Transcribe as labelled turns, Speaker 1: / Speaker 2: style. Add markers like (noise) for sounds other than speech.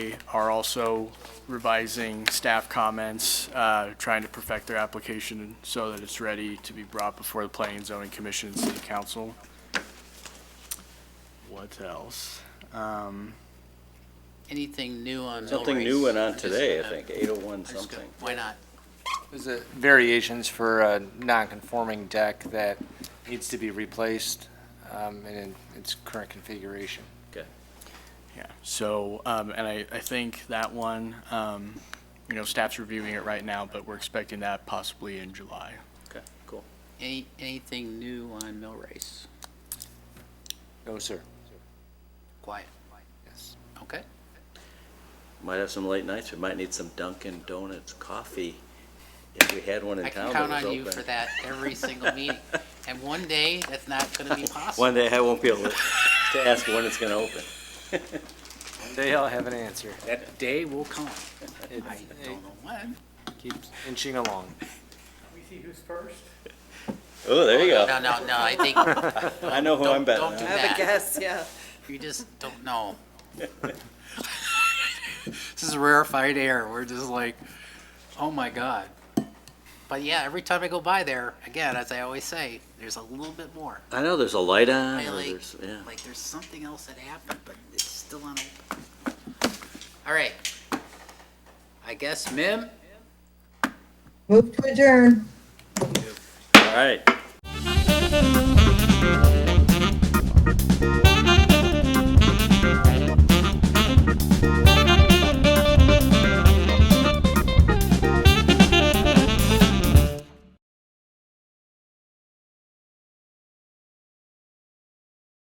Speaker 1: are also revising staff comments, uh, trying to perfect their application so that it's ready to be brought before the Planning and Zoning Commission and City Council. What else? Um,
Speaker 2: Anything new on mill
Speaker 3: Something
Speaker 2: rates?
Speaker 3: new went on
Speaker 2: I'm just
Speaker 3: today, I
Speaker 2: gonna-
Speaker 3: think, 801
Speaker 2: I'm just gonna-
Speaker 3: something.
Speaker 2: Why not?
Speaker 4: There's a variations for a non-conforming deck that needs to be replaced um, and in its current configuration.
Speaker 1: Yeah, so, um, and I, I think that one, um, you know, staff's reviewing it right now, but we're expecting that possibly in July.
Speaker 3: Okay, cool.
Speaker 2: Any, anything new on mill race?
Speaker 4: No, sir.
Speaker 2: Quiet,
Speaker 4: Yes.
Speaker 2: okay?
Speaker 3: Might have some late nights, we might need some Dunkin' Donuts coffee, if we had one in
Speaker 2: I
Speaker 3: town
Speaker 2: can
Speaker 3: that
Speaker 2: count on
Speaker 3: was
Speaker 2: you for
Speaker 3: open.
Speaker 2: that
Speaker 3: (laughs)
Speaker 2: every single meeting. And one day, that's not gonna be
Speaker 3: One
Speaker 2: possible.
Speaker 3: day I won't be able to
Speaker 2: (laughs)
Speaker 3: to ask when it's gonna open.
Speaker 4: They all have an answer.
Speaker 2: That day will come.
Speaker 4: It
Speaker 2: I don't know when.
Speaker 4: it keeps inching along.
Speaker 3: Oh, there you
Speaker 2: No,
Speaker 3: go.
Speaker 2: no, no, I think
Speaker 3: I know who
Speaker 2: Don't- don't
Speaker 3: I'm betting
Speaker 2: do
Speaker 3: on.
Speaker 5: I have
Speaker 2: that.
Speaker 5: a guess,
Speaker 2: (laughs)
Speaker 5: yeah.
Speaker 2: you just don't know. (laughs) This is rarefied air. We're just like, oh my God. But yeah, every time I go by there, again, as I always say, there's a little bit more.
Speaker 3: I know, there's a light on,
Speaker 2: I
Speaker 3: or
Speaker 2: like-
Speaker 3: there's, yeah.
Speaker 2: Like there's something else that happened, but it's still unopened. All right. I guess Mim?
Speaker 5: Move to adjourn.
Speaker 3: All right.